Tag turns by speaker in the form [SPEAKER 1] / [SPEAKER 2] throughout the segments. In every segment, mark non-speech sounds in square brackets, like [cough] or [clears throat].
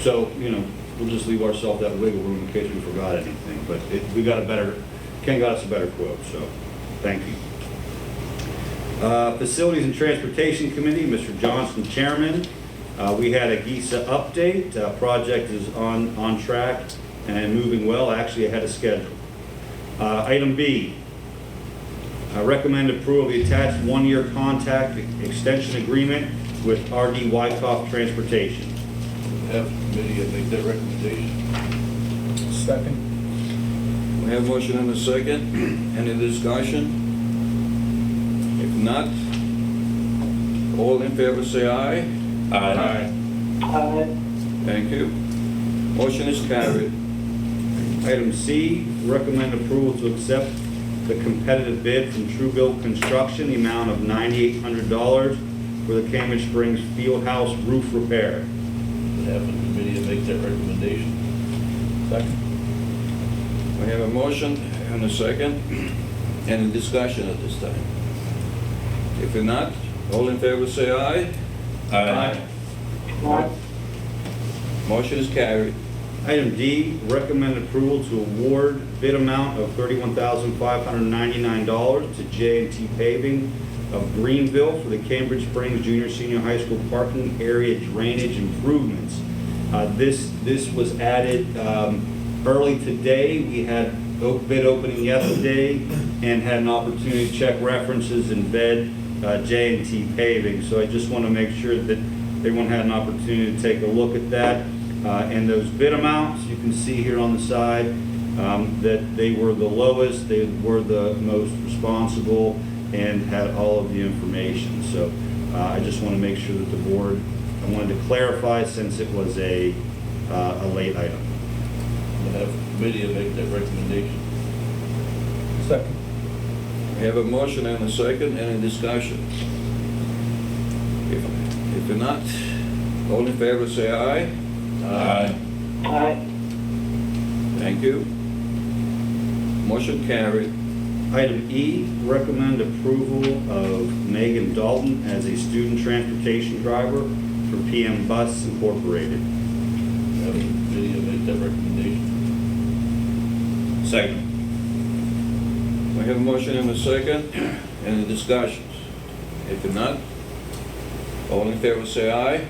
[SPEAKER 1] So, you know, we'll just leave ourselves that wiggle room in case we forgot anything, but it, we got a better, Ken got us a better quote, so, thank you. Uh, Facilities and Transportation Committee, Mr. Johnson, Chairman. Uh, we had a GISA update, uh, project is on, on track and moving well, actually ahead of schedule. Uh, item B, I recommend approval of the attached one-year contact extension agreement with RD Wykoff Transportation.
[SPEAKER 2] Have committee and make that recommendation.
[SPEAKER 3] Second.
[SPEAKER 4] We have motion and
[SPEAKER 1] [clears throat]
[SPEAKER 4] a second. Any discussion? If not, all in favor say aye.
[SPEAKER 5] Aye.
[SPEAKER 4] Thank you. Motion is carried.
[SPEAKER 1] Item C, recommend approval to accept the competitive bid from Truebill Construction, the amount of $9,800 for the Cambridge Springs Fieldhouse roof repair.
[SPEAKER 2] Have committee and make that recommendation.
[SPEAKER 3] Second.
[SPEAKER 4] We have a motion and a second. Any discussion at this time? If not, all in favor say aye.
[SPEAKER 5] Aye.
[SPEAKER 4] Motion is carried.
[SPEAKER 1] Item D, recommend approval to award bid amount of $31,599 to j and T Paving of Greenville for the Cambridge Springs Junior Senior High School parking area drainage improvements. Uh, This, this was added um, early today. We had o- bid opening yesterday and had an opportunity to check references and bid j and T Paving. So I just want to make sure that everyone had an opportunity to take a look at that. Uh, And those bid amounts, you can see here on the side, um, that they were the lowest, they were the most responsible, and had all of the information. So uh, I just want to make sure that the board, I wanted to clarify since it was a, uh, a late item.
[SPEAKER 2] Have committee and make that recommendation.
[SPEAKER 3] Second.
[SPEAKER 4] We have a motion and a second. Any discussion? If if not, all in favor say aye.
[SPEAKER 5] Aye.
[SPEAKER 4] Thank you. Motion carried.
[SPEAKER 1] Item E, recommend approval of Megan Dalton as a student transportation driver for PM Bus Incorporated.
[SPEAKER 2] Have committee and make that recommendation.
[SPEAKER 4] Second. We have a motion and a second. [clears throat] Any discussions? If not, all in favor say aye.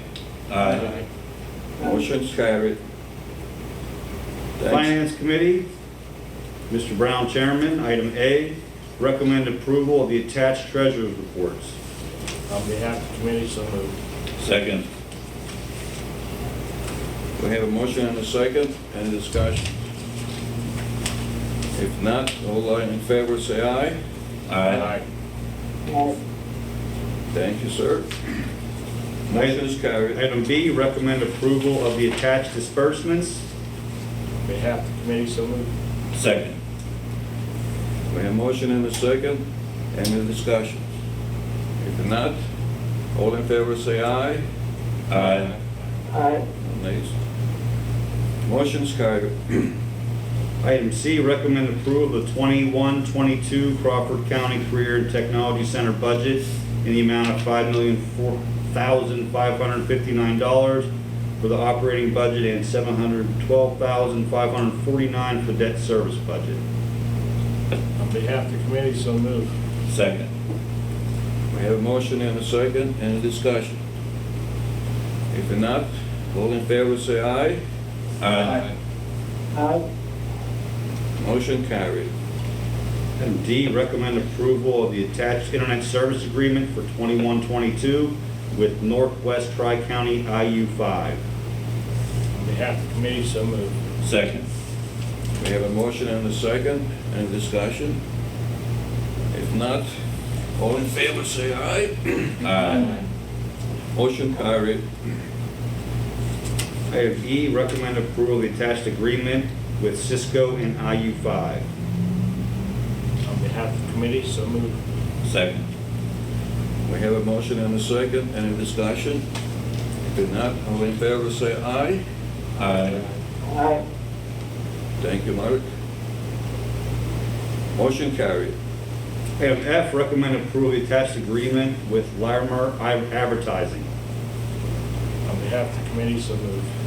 [SPEAKER 4] Motion's carried. Thanks.
[SPEAKER 1] Finance Committee, Mr. Brown, Chairman. Item A, recommend approval of the attached treasurer's reports.
[SPEAKER 6] On behalf of the committee, so moved.
[SPEAKER 2] Second.
[SPEAKER 4] We have a motion and a second. Any discussion? If not, all in favor say aye.
[SPEAKER 5] Aye.
[SPEAKER 4] Thank you, sir. Motion is carried.
[SPEAKER 1] Item B, recommend approval of the attached disbursements.
[SPEAKER 6] On behalf of the committee, so moved.
[SPEAKER 2] Second.
[SPEAKER 4] We have motion and a second, any discussion? If not, all in favor say aye.
[SPEAKER 2] Aye.
[SPEAKER 5] Aye.
[SPEAKER 4] Nays. Motion's carried.
[SPEAKER 1] Item C, recommend approval of the 21-22 Crawford County Career and Technology Center budget in the amount of $5,004,559 for the operating budget and $712,549 for debt service budget.
[SPEAKER 6] On behalf of the committee, so moved.
[SPEAKER 2] Second.
[SPEAKER 4] We have motion and a second, any discussion? If not, all in favor say aye.
[SPEAKER 2] Aye.
[SPEAKER 5] Aye.
[SPEAKER 4] Motion carried.
[SPEAKER 1] Item D, recommend approval of the attached internet service agreement for 2122 with Northwest Tri-County IU5.
[SPEAKER 6] On behalf of the committee, so moved.
[SPEAKER 2] Second.
[SPEAKER 4] We have a motion and a second, any discussion? If not, all in favor say aye.
[SPEAKER 2] Aye.
[SPEAKER 4] Motion carried.
[SPEAKER 1] Item E, recommend approval of the attached agreement with Cisco and IU5.
[SPEAKER 6] On behalf of the committee, so moved.
[SPEAKER 2] Second.
[SPEAKER 4] We have a motion and a second, any discussion? If not, all in favor say aye.
[SPEAKER 2] Aye.
[SPEAKER 5] Aye.
[SPEAKER 4] Thank you, Mark. Motion carried.
[SPEAKER 1] Item F, recommend approval of the attached agreement with Larimer Advertising.
[SPEAKER 6] On behalf of the committee, so moved.